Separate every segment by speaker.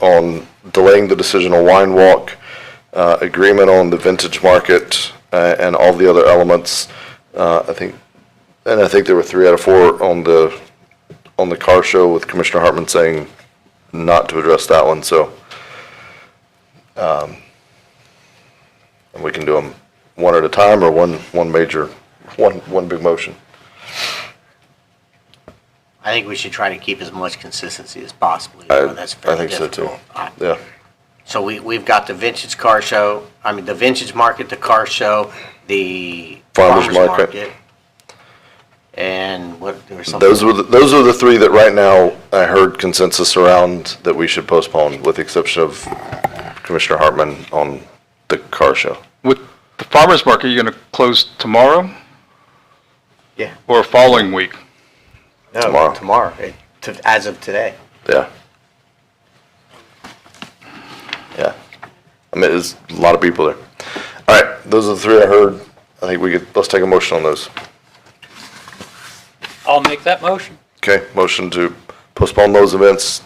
Speaker 1: on delaying the decision on Wine Walk, uh, agreement on the Vintage Market, uh, and all the other elements. Uh, I think, and I think there were three out of four on the, on the car show with Commissioner Hartman saying not to address that one, so. um, And we can do them one at a time or one, one major, one, one big motion.
Speaker 2: I think we should try to keep as much consistency as possible.
Speaker 1: I,
Speaker 2: even though
Speaker 1: I
Speaker 2: Oh, that's fairly
Speaker 1: think so too.
Speaker 2: difficult. Uh,
Speaker 1: Yeah.
Speaker 2: So we, we've got the vintage car show, I mean, the vintage market, the car show, the
Speaker 1: Farmer's
Speaker 2: farmer's
Speaker 1: market.
Speaker 2: market. And what, there was something.
Speaker 1: Those were, the- those are the three that right now I heard consensus around that we should postpone, with the exception of Commissioner Hartman on the car show.
Speaker 3: With the farmer's market, you're going to close tomorrow
Speaker 2: Yeah.
Speaker 3: or following week?
Speaker 2: No,
Speaker 1: Tomorrow.
Speaker 2: Tomorrow, it- to- as of today.
Speaker 1: Yeah. Yeah. I mean, there's a lot of people there. All right, those are the three I heard. I think we could, let's take a motion on those.
Speaker 4: I'll make that motion.
Speaker 1: Okay, motion to postpone those events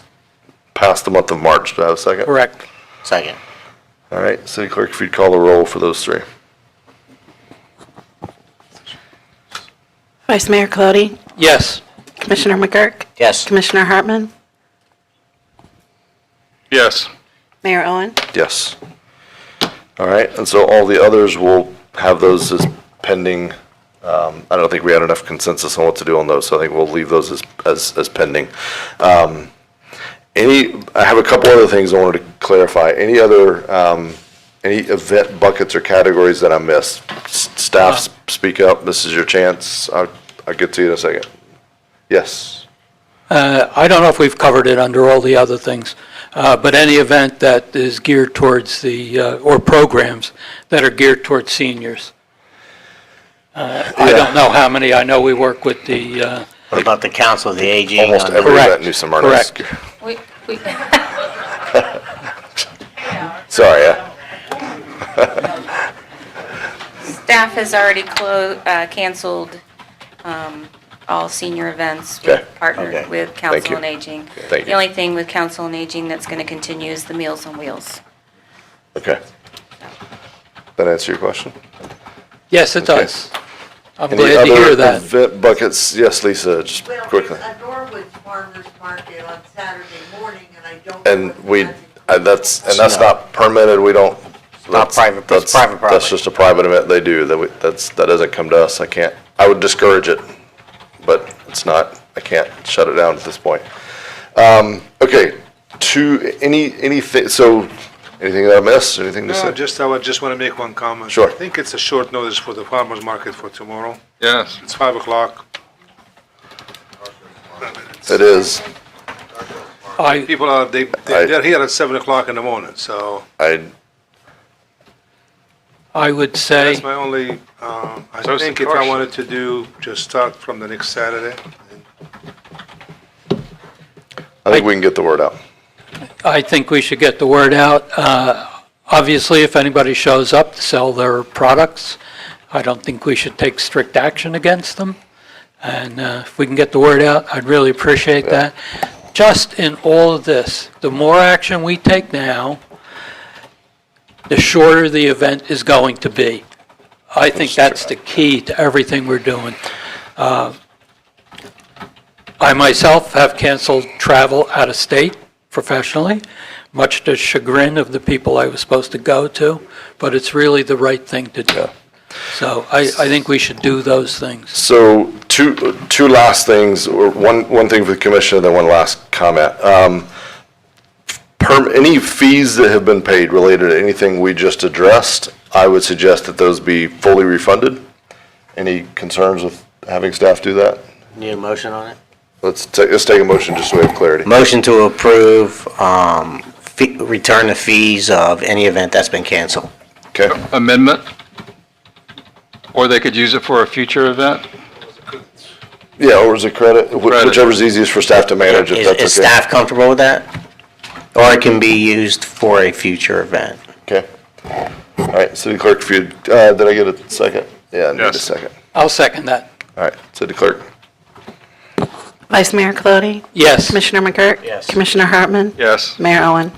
Speaker 1: past the month of March. Do I have a second?
Speaker 4: Correct.
Speaker 2: Second.
Speaker 1: All right, city clerk, if you'd call the roll for those three.
Speaker 5: Vice Mayor Colodey,
Speaker 4: Yes.
Speaker 5: Commissioner McGurk,
Speaker 2: Yes.
Speaker 5: Commissioner Hartman,
Speaker 3: Yes.
Speaker 5: Mayor Owen.
Speaker 1: Yes. All right, and so all the others will have those as pending. Um, I don't think we had enough consensus on what to do on those, so I think we'll leave those as, as, as pending. Um, Any, I have a couple other things I wanted to clarify. Any other, um, any event buckets or categories that I missed? S- Staff,
Speaker 4: Uh.
Speaker 1: speak up, this is your chance. I'll, I'll get to you in a second. Yes,
Speaker 4: Uh, I don't know if we've covered it under all the other things, uh, but any event that is geared towards the, uh, or programs that are geared towards seniors. Uh, I don't know how many. I know we work with the, uh,
Speaker 2: What about the council, of the uh, aging?
Speaker 1: almost
Speaker 2: on the-
Speaker 1: every event
Speaker 4: Correct,
Speaker 1: in New Smyrna is-
Speaker 4: correct.
Speaker 6: We, we,
Speaker 1: Sorry, I-
Speaker 6: staff has already clo, uh, canceled, um, all senior events.
Speaker 1: Okay.
Speaker 6: We've
Speaker 2: Okay.
Speaker 6: Partnered with
Speaker 1: you.
Speaker 6: Council on Aging.
Speaker 1: Thank
Speaker 6: The
Speaker 1: you.
Speaker 6: only thing with Council on Aging that's gonna continue is the Meals on Wheels.
Speaker 1: okay. That answer your question?
Speaker 4: yes, it
Speaker 1: Okay.
Speaker 4: does. I'm
Speaker 1: Any
Speaker 4: glad to
Speaker 1: other
Speaker 4: hear that.
Speaker 1: event buckets? Yes, Lisa, just
Speaker 7: Well,
Speaker 1: quickly.
Speaker 7: there's a Norwood Farmers Market on Saturday morning, and I don't. know
Speaker 1: And
Speaker 7: what
Speaker 1: we,
Speaker 7: time it
Speaker 1: uh, that's, and
Speaker 2: It's
Speaker 1: that's
Speaker 2: not-
Speaker 1: not permitted, we don't. that's-
Speaker 2: private, it's
Speaker 1: that's-
Speaker 2: private
Speaker 1: That's
Speaker 2: property.
Speaker 1: just a private event they do, that we, that's, that doesn't come to us, I can't, I would discourage it, but it's not, I can't shut it down at this point. Um, okay, to, any, anything, so, anything that I missed, anything to
Speaker 8: No,
Speaker 1: say?
Speaker 8: just, I would just want to make one comment.
Speaker 1: Sure.
Speaker 8: I think it's a short notice for the farmer's market for tomorrow.
Speaker 3: Yes.
Speaker 8: It's five o'clock.
Speaker 1: It is,
Speaker 4: I,
Speaker 8: People are, they,
Speaker 1: I-
Speaker 8: they- they're here at seven o'clock in the morning, so
Speaker 1: I,
Speaker 4: I would say.
Speaker 8: that's my only, um, I
Speaker 3: Close the
Speaker 8: think if
Speaker 3: car
Speaker 8: I
Speaker 3: show.
Speaker 8: wanted to do, just start from the next Saturday.
Speaker 1: I think we can get the word out.
Speaker 4: I think we should get the word out. Uh, Obviously, if anybody shows up to sell their products, I don't think we should take strict action against them. And uh, if we can get the word out, I'd really appreciate that. Just in all of this, the more action we take now, the shorter the event is going to be. I think that's the key to everything we're doing. I myself have canceled travel out of state professionally, much to chagrin of the people I was supposed to go to, but it's really the right thing to do. So I, I think we should do those things.
Speaker 1: So two, two last things, or one, one thing for the commission, and then one last comment. Um, Perm, any fees that have been paid related to anything we just addressed, I would suggest that those be fully refunded. Any concerns with having staff do that?
Speaker 2: Need a motion on it?
Speaker 1: Let's take, let's take a motion just so we have clarity.
Speaker 2: Motion to approve, um, fee, return the fees of any event that's been canceled.
Speaker 1: Okay,
Speaker 3: Amendment? Or they could use it for a future event?
Speaker 1: yeah, or is it credit, Wh-
Speaker 3: Credit.
Speaker 1: whichever's easiest for staff to manage, if
Speaker 2: Is, is
Speaker 1: that's okay.
Speaker 2: staff comfortable with that? Or it can be used for a future event?
Speaker 1: Okay. All right, city clerk, if you, uh, did I get a second? Yeah, I need a
Speaker 3: Yes.
Speaker 1: second.
Speaker 4: I'll second that.
Speaker 1: All right, city clerk.
Speaker 5: Vice Mayor Colodey?
Speaker 4: Yes.
Speaker 5: Commissioner McGurk?
Speaker 2: Yes.
Speaker 5: Commissioner Hartman?
Speaker 3: Yes.
Speaker 5: Mayor Owen?